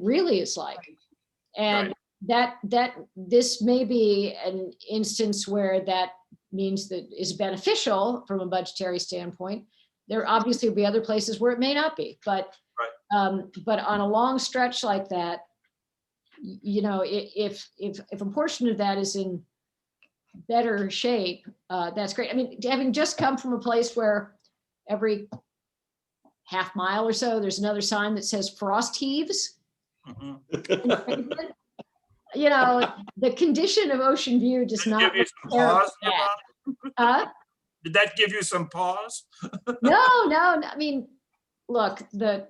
really is like. And that, that, this may be an instance where that means that is beneficial from a budgetary standpoint. There obviously will be other places where it may not be, but, um, but on a long stretch like that, y- you know, i- if, if, if a portion of that is in better shape, uh, that's great. I mean, having just come from a place where every half mile or so, there's another sign that says frost heaves. Mhm. You know, the condition of Ocean View does Did it not. give you some require pause, that. Yvonne? Uh, Did that give you some pause? no, no, no, I mean, look, the,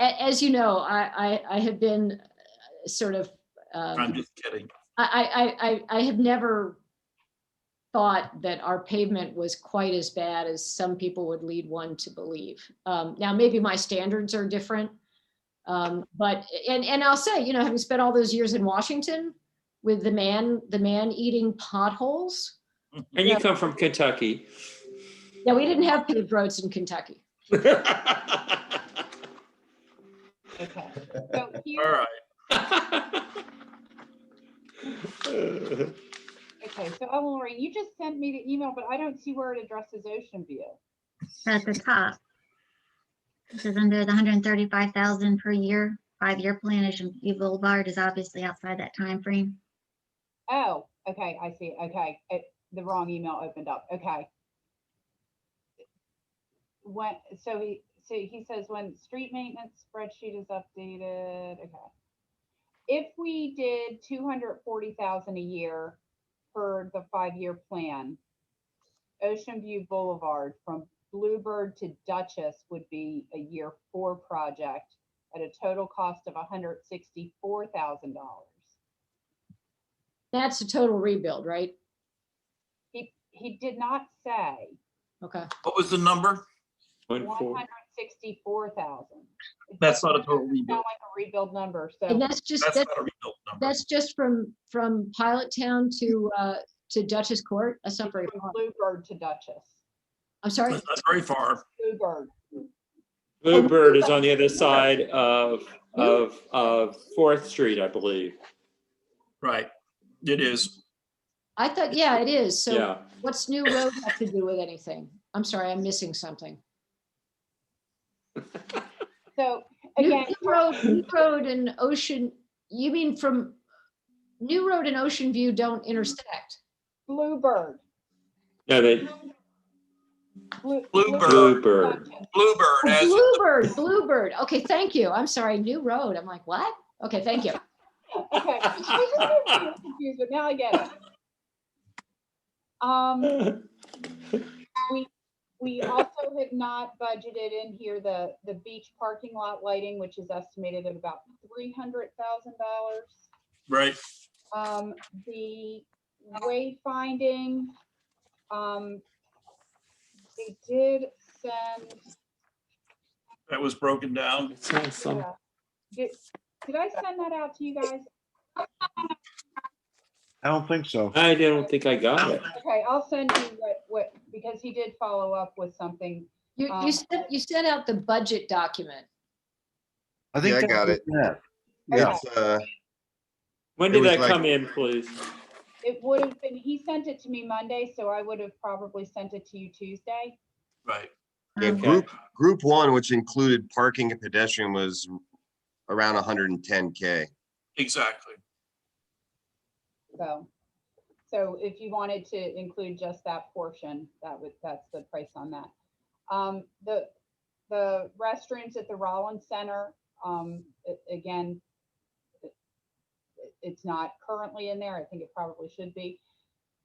a- as you know, I, I, I have been uh, sort of, I'm um, just kidding. I, I, I, I I have never thought that our pavement was quite as bad as some people would lead one to believe. Um, now, maybe my standards are different. Um, but, and, and I'll say, you know, having spent all those years in Washington with the man, the man eating potholes, Mm-hmm. And you come from Kentucky. yeah, we didn't have paved roads in Kentucky. Okay. So All here, right. okay, so oh, Lori, you just sent me the email, but I don't see where it addresses Ocean View. at the top. This is under the hundred and thirty-five thousand per year, five-year plan, Ocean View Boulevard is obviously outside that time frame. Oh, okay, I see. Okay, it, the wrong email opened up. Okay. When, so he, so he says when street maintenance spreadsheet is updated, okay. If we did two hundred forty thousand a year for the five-year plan, Ocean View Boulevard from Bluebird to Duchess would be a year four project at a total cost of hundred sixty-four thousand dollars. That's a total rebuild, right? He, he did not say Okay. What was the number? One one four. hundred sixty-four thousand. That's not a total Sound rebuild. like a rebuild number, so, And that's just, That's that's, not a rebuild number. that's just from, from Pilot Town to, uh, to Duchess Court, that's not very from far. Bluebird to Duchess, I'm sorry, That's not very far. Bluebird, Bluebird is on the other side of, of, of Fourth Street, I believe. Right. It is. I thought, yeah, it is, so Yeah. what's New Road have to do with anything? I'm sorry, I'm missing something. so New again. New Road, New Road and Ocean, you mean from, New Road and Ocean View don't intersect? Bluebird. No, they, Blue- Bluebird. Bluebird. Duchess. Bluebird Oh, as Bluebird, Bluebird, okay, thank you, I'm sorry, New Road, I'm like, what? Okay, thank you. Okay, I was just getting confused, but now I get it. Um, we also have not budgeted in here the, the beach parking lot lighting, which is estimated at about three hundred thousand dollars. right. Um, the wayfinding, um, they did send, That was broken down. It's not some- yeah. did, did I send that out to you guys? I don't think so. I don't think I got it. Okay, I'll send you what, what, because he did follow up with something. You, Um, you sent, you sent out the budget document. I think Yeah, I that's what got it. that- Yeah, Okay, It's, uh, When It did was that like- come in, please? It would have been, he sent it to me Monday, so I would have probably sent it to you Tuesday. Right. yeah, Um, group, group one, which included parking and pedestrian was around hundred and ten K. Exactly. So, so if you wanted to include just that portion, that would, that's the price on that. Um, the, the restrooms at the Rollins Center, um, a- again, it- it's not currently in there. I think it probably should be.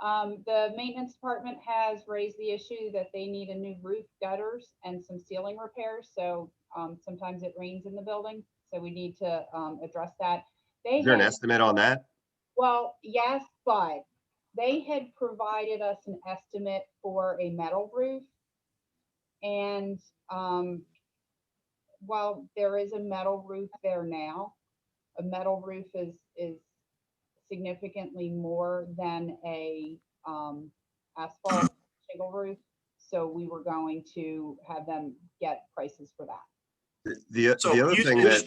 Um, the maintenance department has raised the issue that they need a new roof gutters and some ceiling repairs. So, um, sometimes it rains in the building, so we need to, um, address that. They Is there an had- estimate on that? well, yes, but they had provided us an estimate for a metal roof. And um, while there is a metal roof there now, a metal roof is, is significantly more than a um, asphalt shingle roof. So we were going to have them get prices for that. The, So the other you- thing you that.